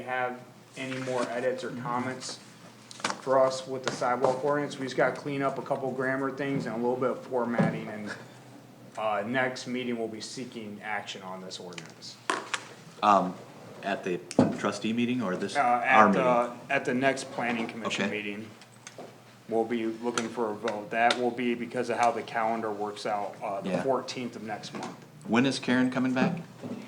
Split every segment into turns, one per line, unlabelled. you have any more edits or comments for us with the sidewalk ordinance, we just gotta clean up a couple grammar things and a little bit of formatting and uh, next meeting, we'll be seeking action on this ordinance.
Um, at the trustee meeting or this,
Uh,
our
at
meeting?
the, at the next planning commission
Okay.
meeting, we'll be looking for a vote. That will be because of how the calendar works out, uh, the
Yeah.
fourteenth of next month.
When is Karen coming back?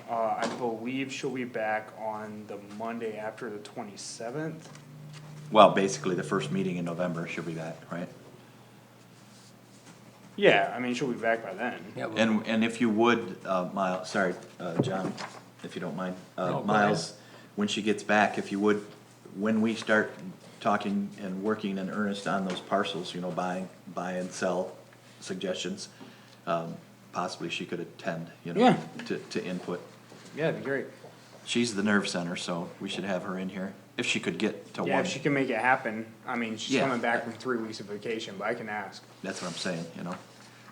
Uh, I believe she'll be back on the Monday after the twenty-seventh.
Well, basically the first meeting in November she'll be back, right?
Yeah, I mean, she'll be back by then.
Yeah, well,
And, and if you would, uh, Miles, sorry, uh, John, if you don't mind,
No, go
uh,
ahead.
Miles, when she gets back, if you would, when we start talking and working in earnest on those parcels, you know, buying, buy and sell suggestions, um, possibly she could attend, you know,
Yeah.
to, to input.
Yeah, that'd be great.
She's the nerve center, so we should have her in here, if she could get to
Yeah,
one,
if she can make it happen, I mean, she's
Yeah.
coming back from three weeks of vacation, but I can ask.
that's what I'm saying, you know?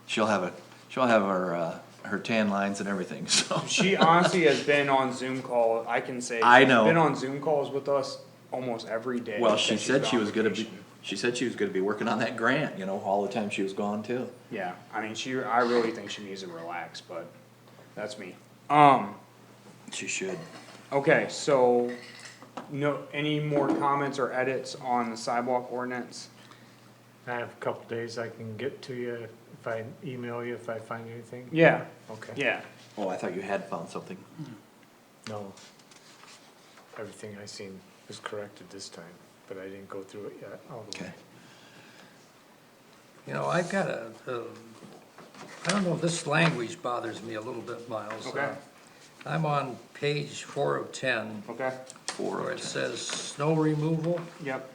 She'll have a, she'll have her, uh, her tan lines and everything, so.
She honestly has been on Zoom call, I can say.
I
she's
know.
Been on Zoom calls with us almost every day.
Well,
that
she
she's
said
been
she
on
was gonna be,
vacation.
she said she was gonna be working on that grant, you know, all the time she was gone too.
Yeah, I mean, she, I really think she needs to relax, but that's me. Um,
She should.
okay, so, no, any more comments or edits on the sidewalk ordinance?
I have a couple days I can get to you if I email you if I find anything.
Yeah,
Okay.
yeah,
Oh, I thought you had found something.
No. Everything I seen is corrected this time, but I didn't go through it yet all the
Okay.
way.
you know, I've got a, a, I don't know, this language bothers me a little bit, Miles. Uh,
Okay.
I'm on page four of ten,
okay,
where it says snow removal,
yep,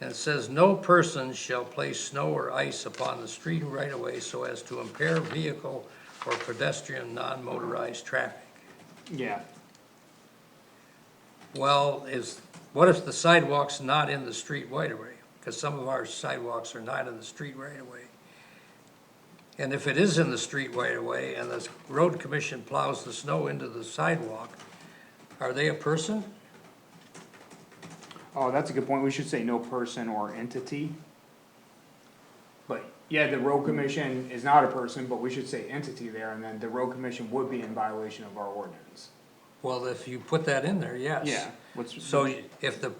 and it says, "No person shall place snow or ice upon the street or right of way so as to impair vehicle or pedestrian non-motorized traffic."
yeah.
Well, is, what if the sidewalk's not in the street right away? Because some of our sidewalks are not in the street right away. And if it is in the street right away and the road commission plows the snow into the sidewalk, are they a person?
Oh, that's a good point, we should say no person or entity. But, yeah, the road commission is not a person, but we should say entity there, and then the road commission would be in violation of our ordinance.
Well, if you put that in there, yes.
Yeah, what's-
So if the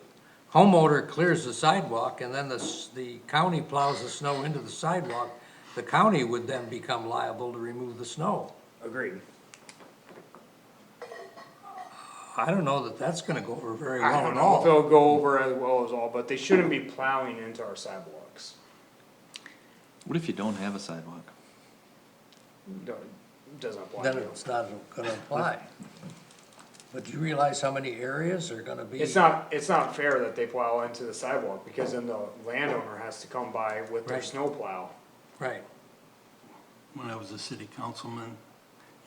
homeowner clears the sidewalk and then the, s- the county plows the snow into the sidewalk, the county would then become liable to remove the snow.
Agreed.
I don't know that that's gonna go over very well
I
at all.
don't know if they'll go over as well as all, but they shouldn't be plowing into our sidewalks.
What if you don't have a sidewalk?
Don't- Doesn't apply
then
to
it's not gonna apply. But do you realize how many areas are gonna be?
It's not, it's not fair that they plow into the sidewalk, because then the landowner has to come by with their
Right.
snowplow.
Right,
when I was a city councilman,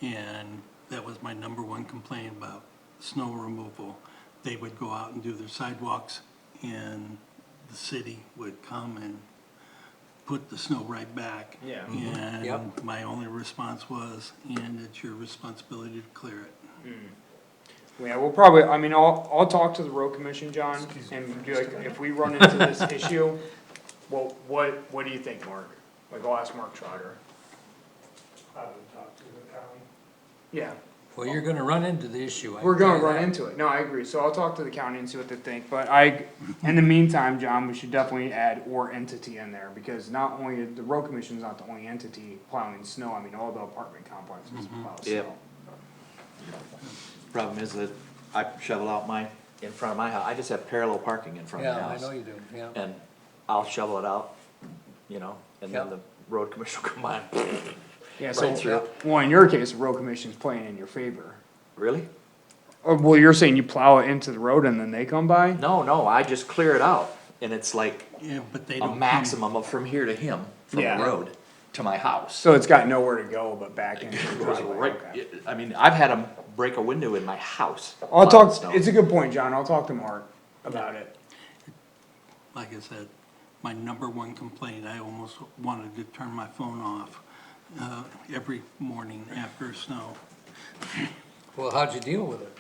and that was my number one complaint about snow removal. They would go out and do their sidewalks, and the city would come and put the snow right back.
Yeah. Mhm.
And
Yep.
my only response was, and it's your responsibility to clear it.
Yeah, we'll probably, I mean, I'll, I'll talk to the road commission, John, and be like, if we run into this issue, well, what, what do you think, Mark? Like, I'll ask Mark Trotter.
I would talk to the county.
Yeah,
well, you're gonna run into the issue. I
we're gonna
tell you
run
that.
into it. No, I agree. So I'll talk to the county and see what they think, but I, in the meantime, John, we should definitely add or entity in there, because not only, the road commission's not the only entity plowing snow, I mean, all the apartment complexes plow
Yep.
snow.
Problem is that I shovel out my, in front of my house, I just have parallel parking in front of my
Yeah, I
house.
know you do, yeah.
And I'll shovel it out, you know, and then
Yeah.
the road commissioner will come by,
Yeah,
Right
so,
through.
well, in your case, the road commission's playing in your favor.
really?
Or, Oh, well, you're saying you plow it into the road and then they come by?
No, no, I just clear it out, and it's like
Yeah, but they don't.
a
come-
maximum of from here to him, from the
Yeah.
road to my house.
So it's got nowhere to go but back into the
Goes
driveway,
right-
okay.
I mean, I've had them break a window in my house.
I'll
Lots of
talk,
snow.
it's a good point, John, I'll talk to Mark about it.
Like I said, my number one complaint, I almost wanted to turn my phone off, uh, every morning after snow.
Well, how'd you deal with it?